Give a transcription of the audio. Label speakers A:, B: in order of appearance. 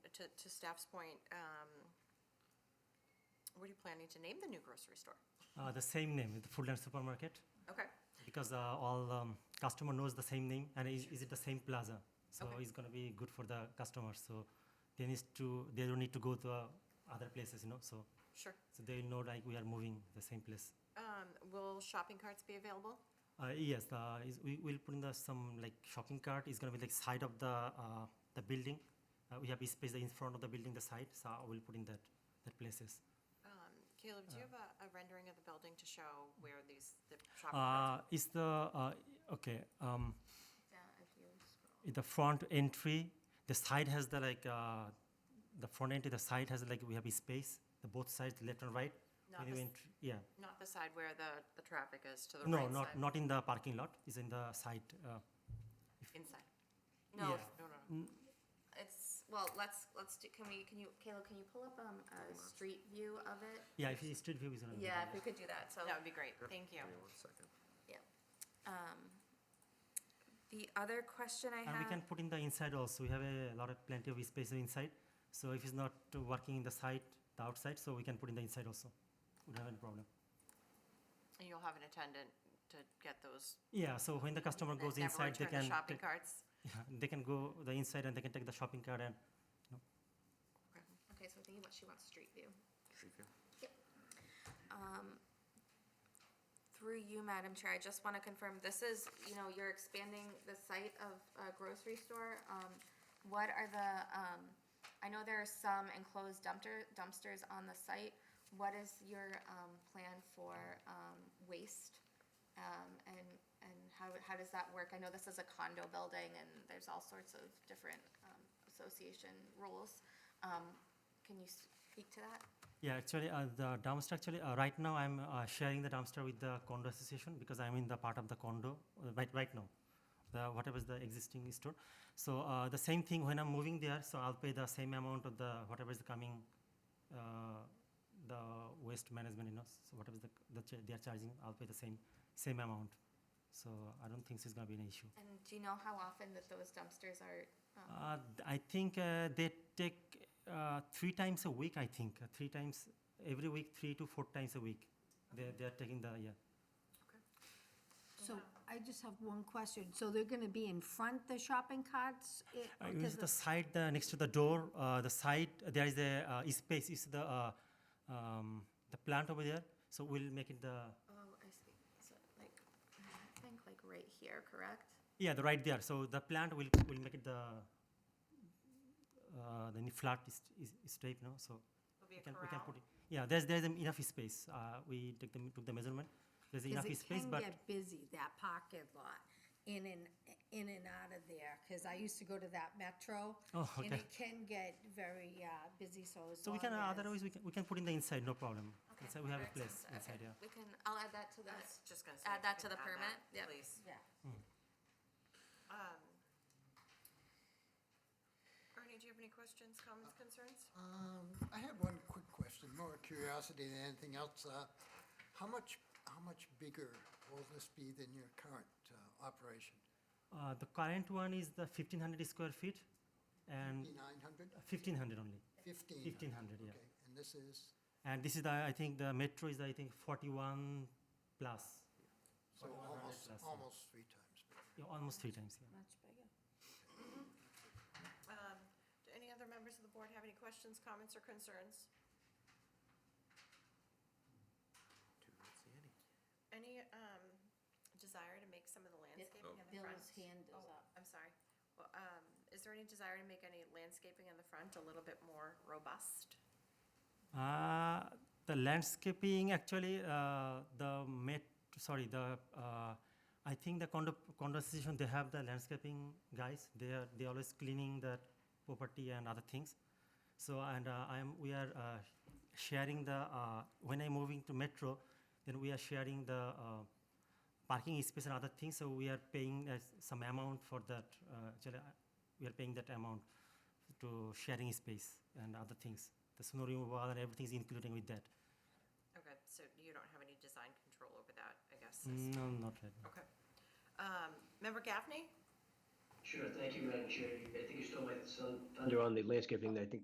A: to, to staff's point, um, what are you planning to name the new grocery store?
B: Uh, the same name, the Foodland Supermarket,
A: Okay,
B: because uh, all um, customer knows the same name, and is, is it the same plaza? So
A: Okay.
B: it's gonna be good for the customers. So they need to, they don't need to go to uh, other places, you know. So
A: sure.
B: so they know like we are moving the same place.
A: Um, will shopping carts be available?
B: Uh, yes, uh, is, we will put in the some like shopping cart. It's gonna be like side of the uh, the building. Uh, we have a space in front of the building, the side. So I will put in that that places.
A: Um, Caleb, do you have a, a rendering of the building to show where these, the shopping carts?
B: Uh, is the uh, okay? Um,
C: Yeah, if you scroll.
B: in the front entry, the side has the like uh, the front entry. The side has like we have a space. The both sides, left and right.
A: Not
B: when you
A: the s-
B: entry, yeah.
A: Not the side where the, the traffic is to the right
B: No,
A: side?
B: not not in the parking lot. It's in the side. Uh,
A: Inside?
C: No,
B: yeah.
A: No, no, no.
C: it's, well, let's, let's do, can we, can you, Kayla, can you pull up, um, a street view of it?
B: Yeah, if it's street view is gonna be
C: Yeah,
B: better.
C: if we could do that, so.
A: That would be great, thank you.
D: Give me one second.
C: Um, the other question I
B: And we can
C: have,
B: put in the inside also. We have a lot of plenty of space inside. So if it's not uh, working in the side, the outside, so we can put in the inside also. We don't have any problem.
A: And you'll have an attendant to get those.
B: Yeah. So when the customer
A: that
B: goes
A: never
B: inside, they
A: return the
B: can
A: Shopping
B: take-
A: carts?
B: yeah, they can go the inside and they can take the shopping cart and
C: okay, so I'm thinking what she wants street view.
D: Street view.
C: Um, Through you, Madam Chair, I just want to confirm, this is, you know, you're expanding the site of a grocery store. Um, What are the, um, I know there are some enclosed dumpster, dumpsters on the site. What is your um, plan for um, waste? Um, And, and how, how does that work? I know this is a condo building and there's all sorts of different um, association rules. Um, Can you speak to that?
B: Yeah, actually, uh, the dumpster, actually, uh, right now I'm uh, sharing the dumpster with the condo association because I'm in the part of the condo uh, right, right now, the, whatever is the existing store. So uh, the same thing when I'm moving there, so I'll pay the same amount of the whatever is coming, uh, the waste management, you know, so whatever is the, the ch- they are charging, I'll pay the same same amount. So I don't think it's going to be an issue.
C: And do you know how often that those dumpsters are? um,
B: Uh, th- I think uh, they take uh, three times a week. I think uh, three times every week, three to four times a week. They they are taking the yeah.
E: So I just have one question. So they're gonna be in front the shopping carts? eh,
B: Uh,
E: because
B: is
E: the-
B: the side uh, next to the door? Uh, the side there is a uh, is space. Is the uh, um, the plant over there? So we'll make it the
C: Oh, I see. So like, I think like right here, correct?
B: yeah the right there. So the plant will will make it the uh, the new flat is, is, is straight now. So
A: It'll be
B: we
A: a
B: can, we can
A: corral.
B: put it. Yeah, there's there's enough space. Uh, we took the took the measurement. There's enough
E: Because it
B: space,
E: can
B: but
E: get busy, that parking lot, in and, in and out of there, because I used to go to that Metro.
B: Oh,
E: And
B: okay.
E: it can get very uh, busy, so as
B: So we
E: long
B: can, uh,
E: as-
B: otherwise, we can, we can put in the inside, no problem.
C: Okay,
B: Inside, we have a
C: perfect.
B: place
C: Okay.
B: inside, yeah.
C: We can, I'll add that to the,
A: That's just gonna say.
C: add
A: if you
C: that to
A: can
C: the
A: add that,
C: permit, yep.
A: Please.
E: Yeah.
A: Um, Ernie, do you have any questions, comments, concerns?
F: Um, I had one quick question, more curiosity than anything else. Uh, How much, how much bigger will this be than your current uh, operation?
B: Uh, the current one is the fifteen hundred square feet and
F: 5,900?
B: fifteen hundred only,
F: 15?
B: fifteen hundred, yeah.
F: Okay, and this is,
B: And this is the, I think the metro is, I think, forty-one plus,
F: so almost,
B: plus, yeah.
F: almost three times bigger.
B: yeah, almost three times, yeah.
E: Much bigger.
A: Um, Do any other members of the board have any questions, comments, or concerns?
D: Dude, I don't see any.
A: Any um, desire to make some of the
D: Oh.
A: landscaping in the front?
E: Bill's hand is
A: Oh,
E: up.
A: I'm sorry. Well, um, Is there any desire to make any landscaping in the front a little bit more robust?
B: Uh, the landscaping, actually, uh, the met, sorry, the, uh, I think the condo, condo association, they have the landscaping guys. They are, they always cleaning the property and other things. So, and uh, I'm, we are uh, sharing the, uh, when I'm moving to metro, then we are sharing the uh, parking space and other things. So we are paying uh, some amount for that. Uh, actually, uh, we are paying that amount to sharing space and other things. The snow removal and everything's including with that.
A: Okay, so you don't have any design control over that, I guess? is-
B: Mm, No, not right now.
A: Okay. Um, Member Gaffney?
G: Sure, thank you, Madam Chair. I think you stole my thunder
H: under on the landscaping, I think